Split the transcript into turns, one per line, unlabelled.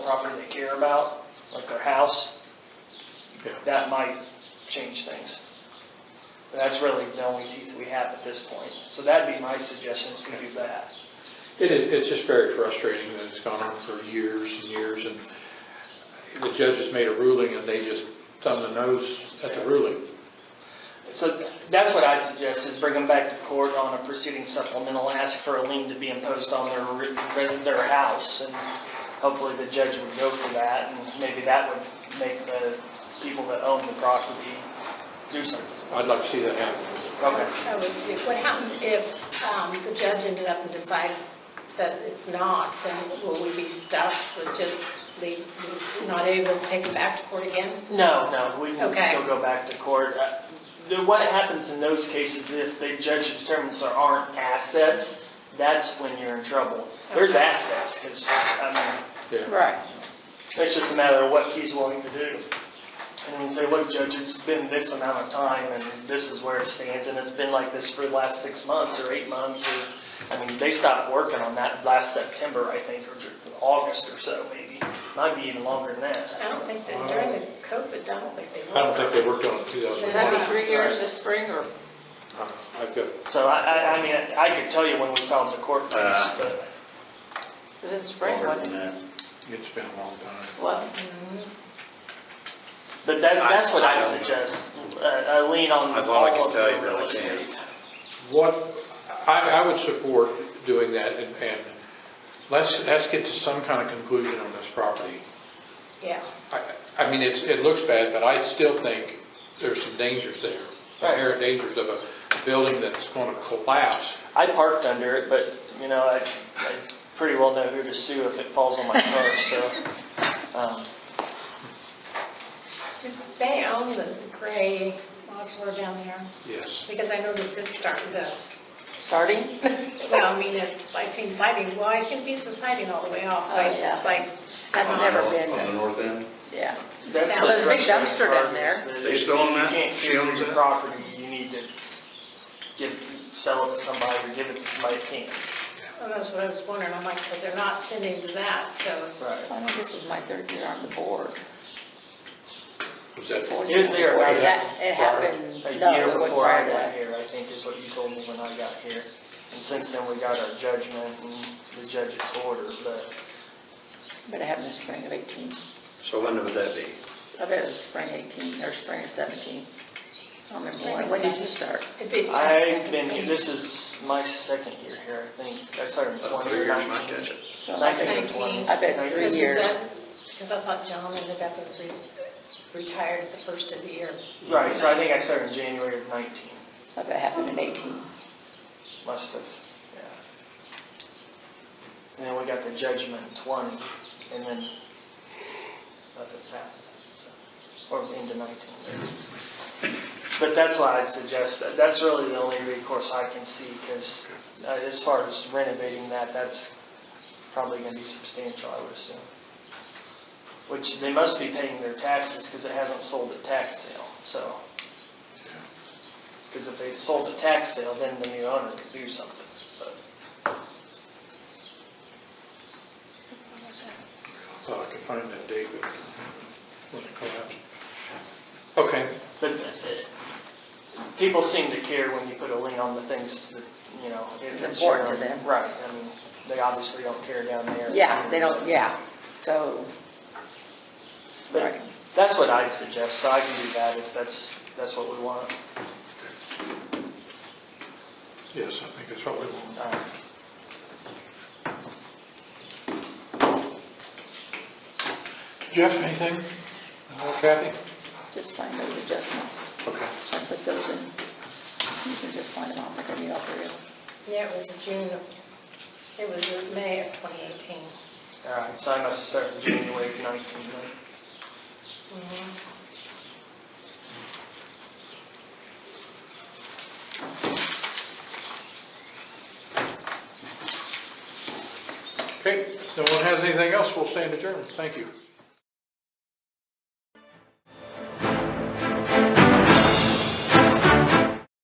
property they care about, like their house,
Yeah.
that might change things. But that's really the only teeth we have at this point. So that'd be my suggestion, is we do that.
It, is- it's just very frustrating that it's gone on for years and years, and the judge has made a ruling, and they just thumb the nose at the ruling.
So th- that's what I'd suggest, is bring them back to court on a proceeding supplemental, ask for a lien to be imposed on their, ri- their house, and hopefully the judge would go for that, and maybe that would make the people that own the property do something.
I'd like to see that happen.
Okay.
I would too. What happens if um, the judge ended up and decides that it's not, then will we be stuck with just leave, not able to take it back to court again?
No, no, we can
Okay.
still go back to court. Uh, the- What happens in those cases, if the judge determines there aren't assets, that's when you're in trouble. There's
Okay.
assets, because, I mean,
Yeah,
Right.
it's just a matter of what he's willing to do. And you say, look, Judge, it's been this amount of time, and this is where it stands, and it's been like this for the last six months or eight months, or, I mean, they stopped working on that last September, I think, or Ju- August or so, maybe. Might be even longer than that.
I don't think that during the COVID, I don't think they
I don't think
were.
they worked on it in
Would that
2001.
be three years this spring or?
Uh, I've got,
So I, I, I mean, I could tell you when we filed the court
Uh,
case, but
Is it spring? What?
it's been a long time.
What?
but that,
I-
that's what
I
I
don't know.
suggest. uh, A a lien on
That's all
all
I can
of
tell you,
the real
really can't.
estate.
What, I, I would support doing that, and, and let's, let's get to some kind of conclusion on this property.
Yeah.
I, I mean, it's, it looks bad, but I still think there's some dangers there,
Right.
inherent dangers of a building that's going to collapse.
I parked under it, but you know, I, I pretty well know who to sue if it falls on my car, so. Um,
Did they own the the gray modular down there?
Yes.
Because I noticed it's starting to,
Starting?
well, I mean, it's, I seen siding, well, I seen pieces of siding all the way off, so
Oh, yeah.
it's like.
That's never been,
On the
done.
north end?
yeah.
that's
Now,
there's a big
frustrating
dumpster
part
down
is that
They
if
still own that?
If you can't
She
clear
owns
your
that?
property, you need to give, sell it to somebody or give it to somebody who can.
Well, that's what I was wondering, I'm like, because they're not tending to that, so.
Right.
I think this is my third year on the board.
Was that? oh,
Four
It was
years on the
there
board.
about
That- It happened,
A
no,
year
it wasn't
before
right
I got
away.
here, I think is what you told me when I got here. And since then, we got our judgment and the judge's order, but
But it happened in spring of 18.
So when would that be?
I bet it was spring 18 or spring of 17. I don't remember
Spring
when.
of
When did you
17.
start?
It'd be-
I've been, here. this is my second year here, I think. I started in
About
twenty
Oh, three
or
years, might
nineteen.
catch it.
So I
Nineteen
think
or twenty.
I bet it's three
Because
years.
that- Because I thought John ended up and re- retired at the first of the year.
Right, so I think I started in January of nineteen,
I bet it happened in 18.
must have, yeah. And then we got the judgment in twenty, and then nothing's happened. so. Or into nineteen. But that's why I'd suggest, that. that's really the only recourse I can see, because as far as renovating that, that's probably gonna be substantial, I would assume. Which they must be paying their taxes, because it hasn't sold at tax sale, so. Because if they sold at tax sale, then the new owner could do something, but.
I thought I could find that date, but when it collapsed. Okay,
But uh, people seem to care when you put a lien on the things that, you know, if it's your
Important to
own-
them.
Right, I mean, they obviously don't care down there.
Yeah, they don't, yeah. So,
But That's what I'd suggest, so I can do that if that's, that's what we want.
yes, I think that's what we want.
Uh,
Jeff, anything? No, Kathy?
just sign those adjustments.
Okay.
I put those in. You can just sign them off, I can read off for you.
Yeah, it was June, of- it was May of 2018.
All right, so I must have started in January of 19, right?
Okay, no one has anything else, we'll stand adjourned, thank you.